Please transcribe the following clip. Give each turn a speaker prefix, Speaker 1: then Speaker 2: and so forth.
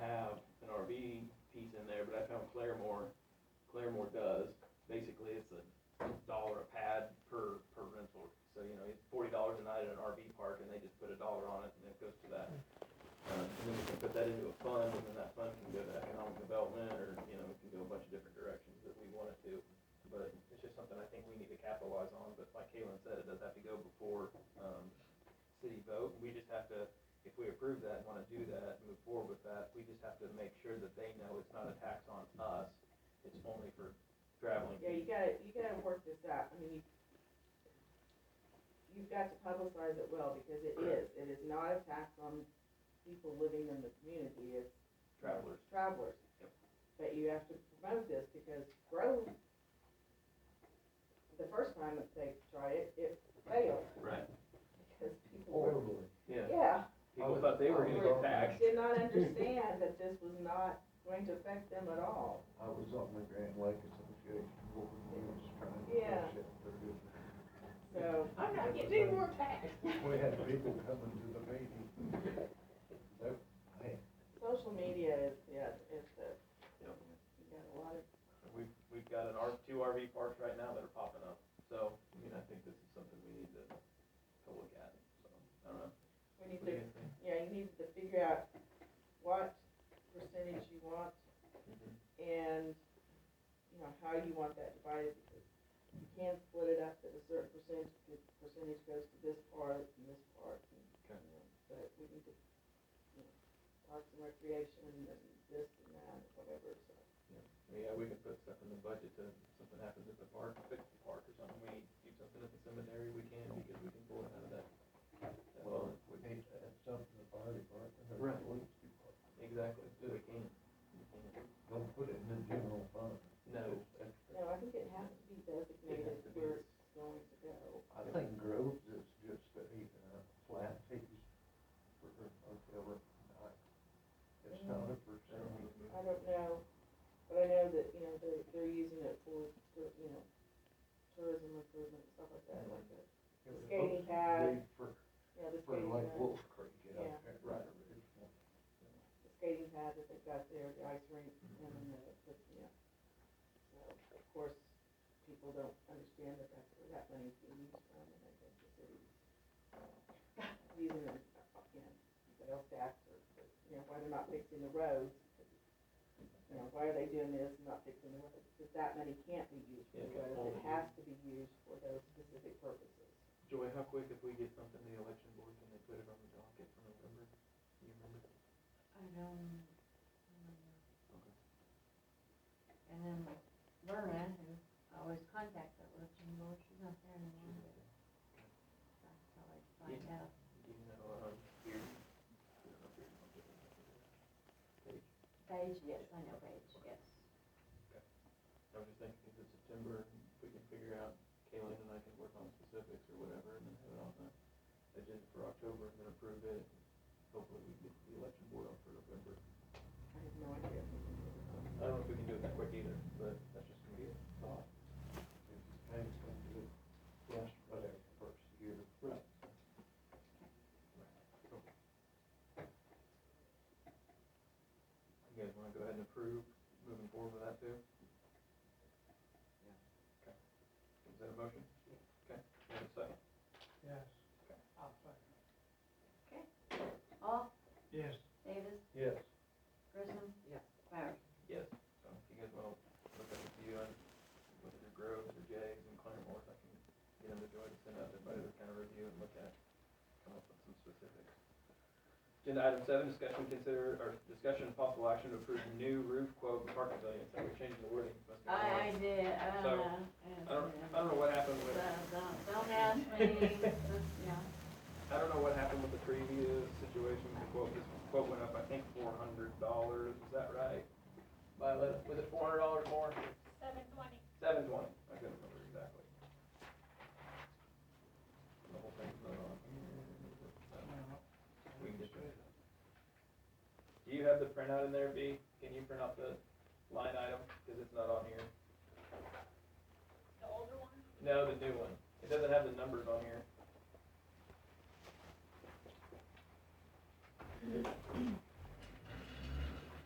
Speaker 1: Claremore does, basically it's a dollar a pad per, per rental. So, you know, it's forty dollars a night at an RV park and they just put a dollar on it and it goes to that. Uh, And then we can put that into a fund and then that fund can go to economic development or, you know, it can go a bunch of different directions that we want it to. But it's just something I think we need to capitalize on, but like Kaylin said, it does have to go before, um, city vote. We just have to, if we approve that and wanna do that, and move forward with that, we just have to make sure that they know it's not a tax on us. It's only for traveling.
Speaker 2: Yeah, you gotta, you gotta work this out, I mean, you, you've got to publicize it well, because it is, it is not a tax on people living in the community, it's.
Speaker 1: Travelers.
Speaker 2: Travelers.
Speaker 1: Yep.
Speaker 2: But you have to promote this, because Grove, the first time that they tried it, it failed,
Speaker 1: Right.
Speaker 2: because people were,
Speaker 3: horribly.
Speaker 1: Oh, Yeah,
Speaker 2: yeah,
Speaker 1: people thought they were gonna get taxed.
Speaker 2: did not understand that this was not going to affect them at all.
Speaker 3: I was on the Grand Lake Association, board, and was trying to
Speaker 2: Yeah.
Speaker 3: push it through.
Speaker 2: So,
Speaker 3: I'm not getting any more We had people coming to the meeting. They- hey,
Speaker 2: social media is, yeah, is the, you got a lot of
Speaker 1: We've, we've got an R, two RV parks right now that are popping up, so, I mean, I think this is something we need to, to look at, so, I don't know.
Speaker 2: We need
Speaker 1: What do
Speaker 2: to,
Speaker 1: you guys think?
Speaker 2: yeah, you need to figure out what percentage you want
Speaker 1: Mm-hmm.
Speaker 2: and, you know, how you want that divided. because You can't split it up that a certain percentage, percentage goes to this part and this part. and, you
Speaker 1: Okay.
Speaker 2: know, But we need to, you know, parks and recreation and this and that, and whatever, so.
Speaker 1: Yeah, we can put stuff in the budget to, if something happens at the park, fix the park or something, we do something at the cemetery, we can, because we can pull it out of that. that
Speaker 3: Well,
Speaker 1: fund.
Speaker 3: we need to add something to the fire department or
Speaker 1: Right.
Speaker 3: the police department.
Speaker 1: Exactly, we can, we can.
Speaker 3: Don't put it in the general fund.
Speaker 1: No,
Speaker 3: It's extra.
Speaker 2: No, I think it has to be designated
Speaker 1: to be.
Speaker 2: where it's going to go.
Speaker 3: I think Groves is just a, uh, flat fees for, or whatever. It's not a percentage.
Speaker 2: I don't know, but I know that, you know, they're, they're using it for, for, you know, tourism improvement, stuff like that, like the,
Speaker 3: It was
Speaker 2: Skating
Speaker 3: supposed to
Speaker 2: pad.
Speaker 3: be For,
Speaker 2: you know, the
Speaker 3: for
Speaker 2: skating
Speaker 3: like
Speaker 2: pad.
Speaker 3: Wolf Creek out
Speaker 2: Yeah.
Speaker 3: there.
Speaker 1: Right.
Speaker 3: It's-
Speaker 2: The skating pad that they've got there, the ice rink, and then the, the, you know. So, of course, people don't understand that that's where that money's being used from, and I think the city's uh, using it, you know, sales tax, or, you know, why they're not fixing the roads. You know, why are they doing this and not fixing the roads? Because that money can't be used for
Speaker 1: Yeah, it
Speaker 2: the
Speaker 1: can
Speaker 2: roads, it
Speaker 1: only be-
Speaker 2: has to be used for those specific purposes.
Speaker 1: Joy, how quick if we get something to the election board, can they put it on the docket for November? Do you remember?
Speaker 4: I don't, I don't know. And then Verna, who I always contact that lives in Lord, she's not there anymore, but I can always find out.
Speaker 1: Do you know, um, your, I don't know if you're on different page?
Speaker 4: Paige, yes, I know Paige, yes.
Speaker 1: I was just thinking, if it's September, we can figure out, Kaylin and I can work on specifics or whatever, and then have it on the agenda for October, and then approve it. Hopefully, we get the election board on for November.
Speaker 2: I have no idea.
Speaker 1: I don't know if we can do it that quick either, but that's just gonna be a thought.
Speaker 3: Things can do, yes, whatever, first year.
Speaker 1: Right. You guys wanna go ahead and approve, moving forward with that too? Yeah. Okay. Is that a motion? Okay, you have a second?
Speaker 3: Yes.
Speaker 4: Hall,
Speaker 3: Yes.
Speaker 4: Oh, Davis,
Speaker 3: Yes.
Speaker 4: Grissom? Yes. Bowers?
Speaker 1: Yes, so if you guys wanna look up a few on whether they're Groves or Jags and Claremores, I can get them to join and send out everybody to kind of review and look at, come up with some specifics. Agenda item seven, discussion consider, or discussion and possible action to approve new roof quote for park pavilion, so we're changing the wording. must be
Speaker 4: I, I
Speaker 1: wrong.
Speaker 4: did, uh,
Speaker 1: So,
Speaker 4: and,
Speaker 1: I don't, I
Speaker 4: uh,
Speaker 1: don't know what happened with,
Speaker 4: Don't, don't ask me, yeah.
Speaker 1: I don't know what happened with the previous situation, the quote, this quote went up, I think, four hundred dollars, is that right? Violet, was it four hundred dollars more?
Speaker 5: Seven twenty.
Speaker 1: Seven twenty, I couldn't remember exactly. The whole thing's not on. We can just- Do you have the printout in there, B? Can you print out the line item, cause it's not on here?
Speaker 5: the older one.
Speaker 1: No, the new one, it doesn't have the numbers on here.